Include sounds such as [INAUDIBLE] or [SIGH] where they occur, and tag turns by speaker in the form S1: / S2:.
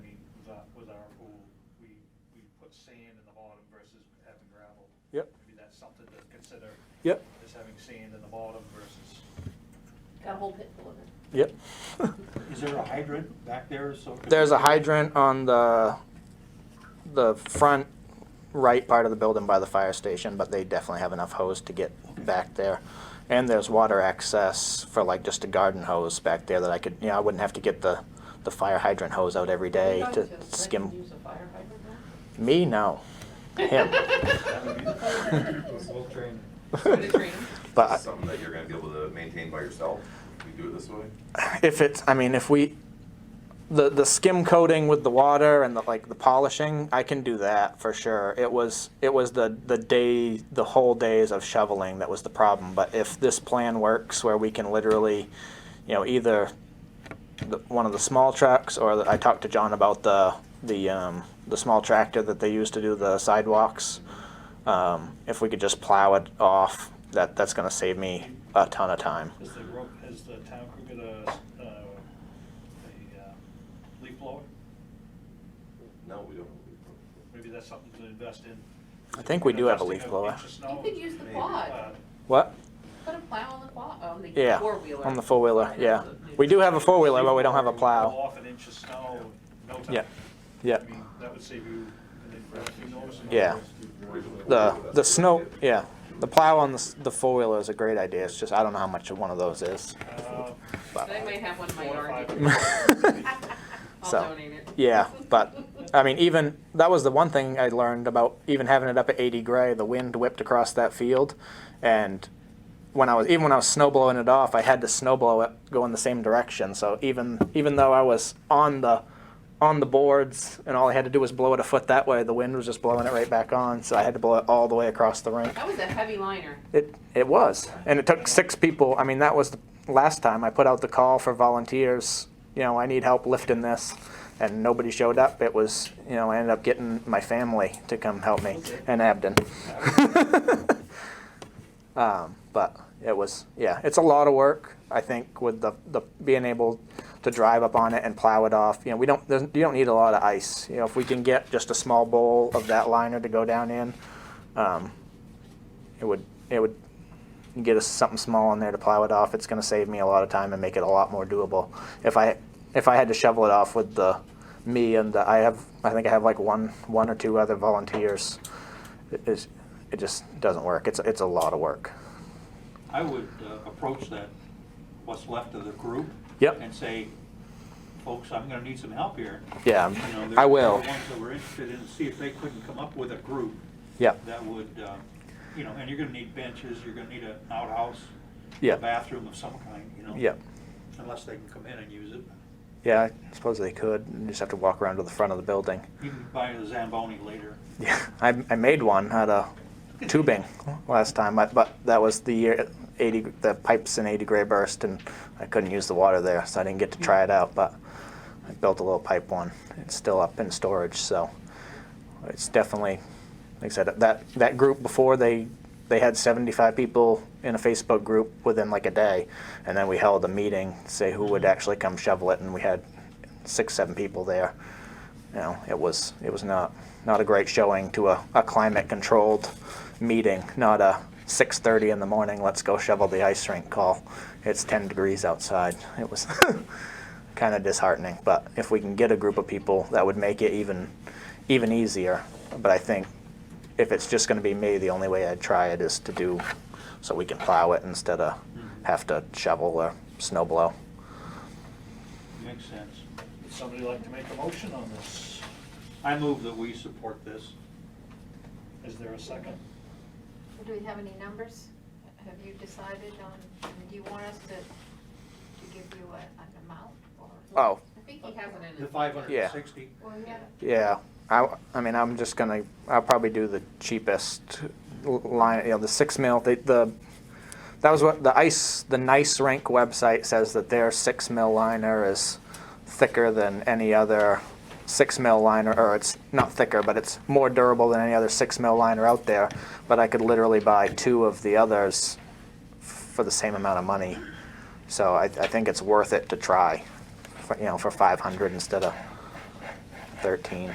S1: put sand in the bottom versus having gravel.
S2: Yep.
S1: Maybe that's something to consider,
S2: Yep,
S1: is having sand in the bottom versus.
S3: Got a whole pit full of it.
S2: yep.
S1: [LAUGHS]
S4: Is there a hydrant back there, so?
S5: There's a hydrant on the the front right part of the building by the fire station, but they definitely have enough hose to get back there. And there's water access for like just a garden hose back there that I could, you know, I wouldn't have to get the the fire hydrant hose out every day
S3: Would you
S5: to
S3: like let them
S5: skim.
S3: Use a fire hydrant now?
S5: Me, no.
S3: [LAUGHS]
S5: Him.
S4: We'll train.
S3: Put a drain.
S5: But
S6: It's something that you're gonna be able to maintain by yourself, you do it this way.
S5: if it's i mean if we the the skim coating with the water and the like the polishing i can do that for sure it was it was the the day the whole days of shoveling that was the problem but if this plan works where we can literally you know either the, one of the small trucks or the, i talked to john about the the um the small tractor that they use to do the sidewalks um if we could just plow it off that that's going to save me a ton of time
S1: Is the rope, is the town crew gonna, uh, a uh, leaf blower?
S6: No, we don't.
S1: Maybe that's something to invest in.
S5: I think we do have a leaf
S1: Investing of
S5: blower.
S1: inch of snow,
S3: You could use the
S1: maybe,
S3: quad.
S1: uh,
S5: what
S3: Put a plow on the plow, on the
S5: Yeah,
S3: four-wheeler.
S5: on the four-wheeler, yeah. We do have a four-wheeler, but we don't have a
S1: Go
S5: plow.
S1: off an inch of snow, no time.
S5: Yeah, yeah.
S1: I mean, that would save you, an inch- you notice an
S5: Yeah. The, the snow, yeah, the plow on the, s- the four-wheeler is a great idea, it's just, I don't know how much one of
S3: [LAUGHS]
S5: those is.
S1: Uh,
S5: but-
S3: I might have one in my
S1: Four or
S3: yard.
S1: five.
S5: [LAUGHS]
S3: I'll
S5: So,
S3: donate it.
S5: Yeah, but, I mean, even, that was the one thing I learned about even having it up at eighty gray, the wind whipped across that field. And when I was, even when I was snow blowing it off, I had to snow blow it going the same direction. So even, even though I was on the, on the boards and all I had to do was blow it a foot that way, the wind was just blowing it right back on. So I had to blow it all the way across the rink.
S3: That was a heavy liner.
S5: It it was, and it took six people. I mean, that was the last time I put out the call for volunteers. You know, I need help lifting this, and nobody showed up. It was, you know, I ended up getting my family to come help me and Abden. [LAUGHS] um, but it was, yeah, it's a lot of work. I think with the the being able to drive up on it and plow it off. You know, we don't there's- you don't need a lot of ice. You know, if we can get just a small bowl of that liner to go down in. Um, it would it would get us something small in there to plow it off. It's going to save me a lot of time and make it a lot more doable. If I if I had to shovel it off with the me and the, I have I think I have like one one or two other volunteers. It is it just doesn't work. It's it's a lot of work.
S4: I would uh, approach that, what's left of the group.
S5: Yep.
S4: And say, folks, I'm gonna need some help here.
S5: Yeah,
S4: You know, there-
S5: I will.
S4: There are ones that we're interested in, see if they couldn't come up with a group
S5: Yeah,
S4: that would, uh, you know, and you're gonna need benches, you're gonna need an outhouse.
S5: Yeah.
S4: A bathroom of some kind, you know.
S5: yeah,
S4: Unless they can come in and use it.
S5: yeah. I suppose they could. You just have to walk around to the front of the building.
S4: You can buy a Zamboni later.
S5: Yeah, [LAUGHS] I, I made one out of tubing last time, but, but that was the year 80, the pipes in 80 gray burst, and I couldn't use the water there, so I didn't get to try it out. But I built a little pipe one. It's still up in storage, so it's definitely, like I said, that, that group before they, they had 75 people in a Facebook group within like a day, and then we held a meeting, to say who would actually come shovel it, and we had six, seven people there you know, it was it was not not a great showing to a, a climate controlled meeting, not a six thirty in the morning, let's go shovel the ice rink call. It's ten degrees outside. It was [LAUGHS] kind of disheartening. But if we can get a group of people that would make it even even easier. But I think if it's just gonna be me, the only way I'd try it is to do so we can plow it instead of have to shovel or snow blow.
S4: Makes sense.
S1: Would somebody like to make a motion on this?
S4: I move that we support this.
S1: Is there a second?
S7: Do we have any numbers? Have you decided on, I mean, do you want us to, to give you a, an amount or?
S5: Oh,
S3: I think he has it in
S4: The
S3: his.
S4: five hundred and sixty.
S7: Well, yeah,
S5: Yeah, I, I mean, I'm just gonna, I'll probably do the cheapest l- line, you know, the six mil, the, the, that was what, the ice, the nice rank website says that their six mil liner is thicker than any other six mil liner, or it's not thicker, but it's more durable than any other six mil liner out there. But I could literally buy two of the others f- for the same amount of money. So I, I think it's worth it to try, for, you know, for five hundred instead of thirteen.